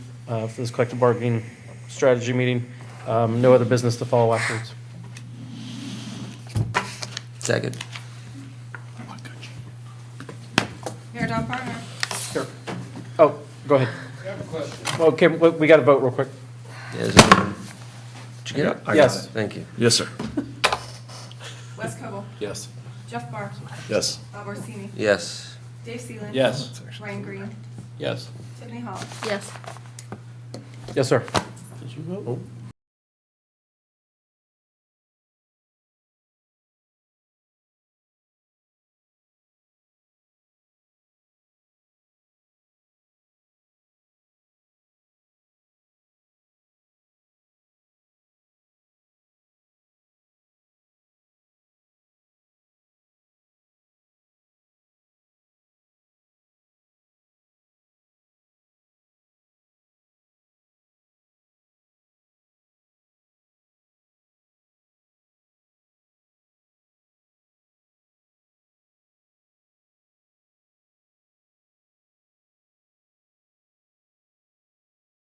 uh, for this collective bargaining strategy meeting. Um, No other business to follow afterwards. Second. Mayor Don Partner. Oh, go ahead. Okay, we we got to vote real quick. Yes. um, Did you get it? I got Yes. it. Thank you. Yes, sir. Wes Cobble. Yes. Jeff Barr. Yes. Bob Orsini. Yes. Dave Seeland. Yes. Ryan Green. Yes. Tiffany Hall. Yes. Yes, sir. Did you vote?